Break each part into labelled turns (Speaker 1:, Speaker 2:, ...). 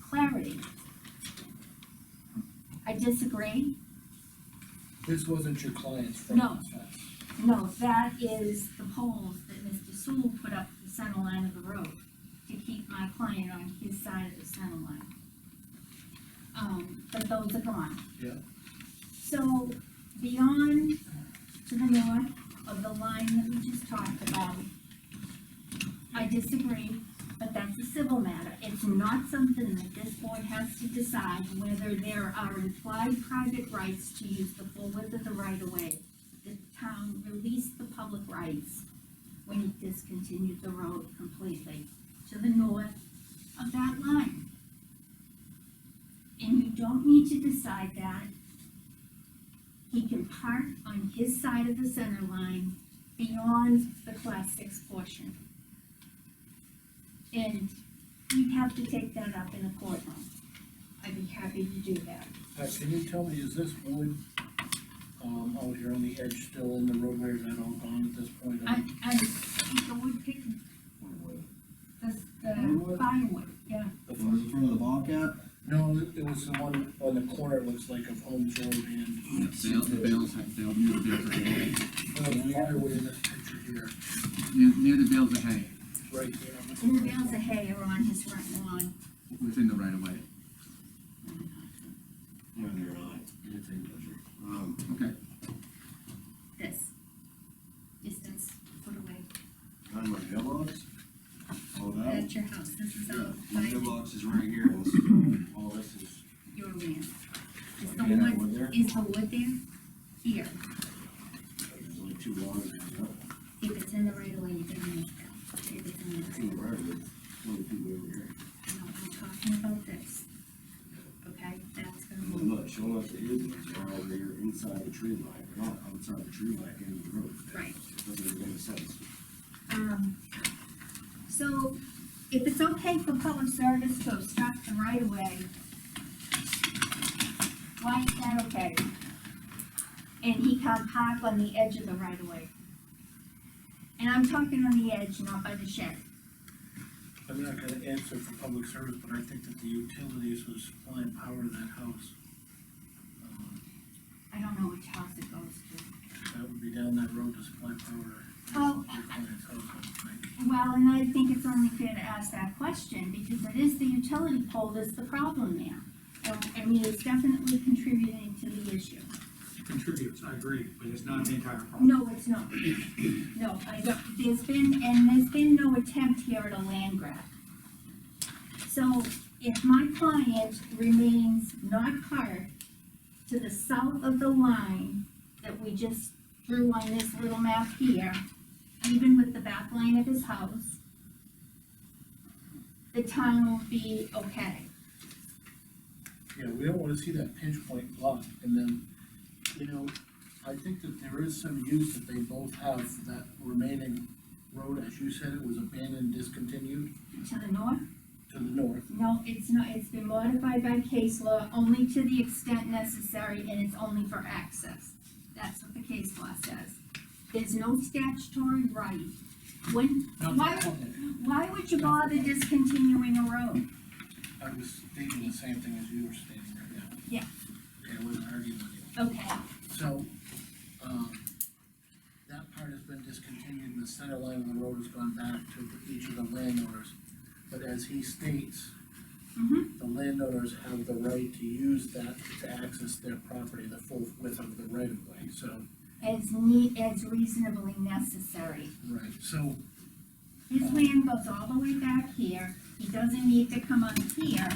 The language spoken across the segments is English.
Speaker 1: property. I disagree,
Speaker 2: This wasn't your client's front
Speaker 1: No.
Speaker 2: fence.
Speaker 1: no, that is the poles that Mr. Sewell put up the center line of the road to keep my client on his side of the center line. Um, but those are gone.
Speaker 2: Yeah.
Speaker 1: So beyond to the north of the line that we just talked about, I disagree, but that's a civil matter. It's not something that this board has to decide whether there are implied private rights to use the full width of the right of way. The town released the public rights when it discontinued the road completely to the north of that line. And you don't need to decide that. He can park on his side of the center line beyond the class six portion. And we'd have to take that up in a courtroom. I'd be happy to do that.
Speaker 2: Pat, Uh, can you tell me, is this wood, um, out here on the edge still in the roadway, or is that all gone at this point?
Speaker 1: I, I think the wood pick, the, the
Speaker 2: Firewood?
Speaker 1: firewood, yeah.
Speaker 2: The
Speaker 3: Was it from the Bobcat?
Speaker 2: No, it was the one on the corner, it looks like, of Holmes Road and,
Speaker 4: Sales, the bales, they'll near the bales of hay,
Speaker 2: well, the other way in this picture here,
Speaker 4: near, near the bales of hay,
Speaker 2: right there. on
Speaker 1: And the
Speaker 2: corner.
Speaker 1: bales of hay are on his front lawn.
Speaker 4: within the right of way.
Speaker 3: Yeah, they're not. It's in pleasure. Um,
Speaker 4: Okay,
Speaker 1: This distance, foot away.
Speaker 3: on my mailbox? Oh, that?
Speaker 1: That's your house. This is
Speaker 3: Yeah,
Speaker 1: all
Speaker 3: My
Speaker 1: by
Speaker 3: mailbox is right here, and this is all, all this is.
Speaker 1: your land. Is the
Speaker 3: Yeah, that
Speaker 1: wood,
Speaker 3: one there.
Speaker 1: is the wood there? Here.
Speaker 3: There's only two logs in it, yeah.
Speaker 1: If it's in the right of way, you can make that. If it's in the right of way.
Speaker 3: Two in the right of it, only two over here.
Speaker 1: No, I'm talking about this. Okay, that's gonna
Speaker 3: And
Speaker 1: move,
Speaker 3: look, showing us the is, they're all there inside the tree line, they're not outside the tree line in the road.
Speaker 1: right.
Speaker 3: It Doesn't make any sense.
Speaker 1: Um, so if it's okay for public service to obstruct the right of way, why is that okay? And he can't park on the edge of the right of way. And I'm talking on the edge, not by the shed.
Speaker 2: I'm not gonna answer for public service, but I think that the utilities was supplying power to that house. Um,
Speaker 1: I don't know which house it goes to.
Speaker 2: That would be down that road to supply power
Speaker 1: Oh.
Speaker 2: to your client's house, I would think.
Speaker 1: Well, and I think it's only fair to ask that question, because it is the utility pole that's the problem there. And, I mean, it's definitely contributing to the issue.
Speaker 5: contributes, I agree, but it's not the entire problem.
Speaker 1: No, it's not. No, I don't, there's been, and there's been no attempt here at a land grab. So if my client remains not parked to the south of the line that we just drew on this little map here, even with the back line of his house, the town will be okay.
Speaker 2: Yeah, we don't wanna see that pinch point block, and then, you know, I think that there is some use that they both have for that remaining road, as you said, it was abandoned, discontinued
Speaker 1: To the north,
Speaker 2: to the north.
Speaker 1: no, it's not, it's been modified by case law only to the extent necessary, and it's only for access. That's what the case law says. There's no statutory right. When, why, why would you bother discontinuing a road?
Speaker 2: I was thinking the same thing as you were stating right now.
Speaker 1: Yeah.
Speaker 2: Okay, I wasn't arguing with you.
Speaker 1: Okay,
Speaker 2: So, um, that part has been discontinued, and the center line of the road has gone back to each of the landowners. But as he states,
Speaker 1: mm-hmm,
Speaker 2: the landowners have the right to use that to access their property, the full width of the right of way, so.
Speaker 1: as neat, as reasonably necessary.
Speaker 2: Right. So,
Speaker 1: His land goes all the way back here, he doesn't need to come up here.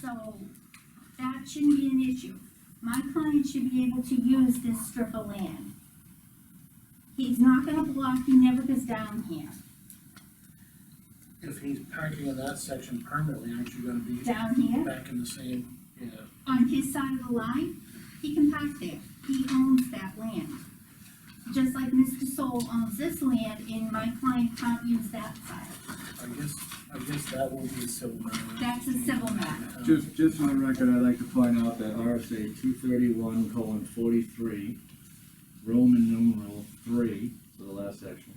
Speaker 1: So, that shouldn't be an issue. My client should be able to use this strip of land. He's not gonna block, he never goes down here,
Speaker 2: if he's parking in that section permanently, aren't you gonna be
Speaker 1: down here,
Speaker 2: back in the same, yeah,
Speaker 1: on his side of the line, he can park there, he owns that land. Just like Mr. Soul owns this land, and my client can't use that side,
Speaker 2: I guess, I guess that will be a civil matter.
Speaker 1: that's a civil matter.
Speaker 2: Um,
Speaker 6: Just, just for the record, I'd like to point out that RSA two thirty-one colon forty-three, Roman numeral three, so the last section,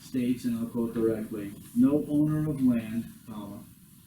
Speaker 6: states, and I'll quote directly, no owner of land, comma,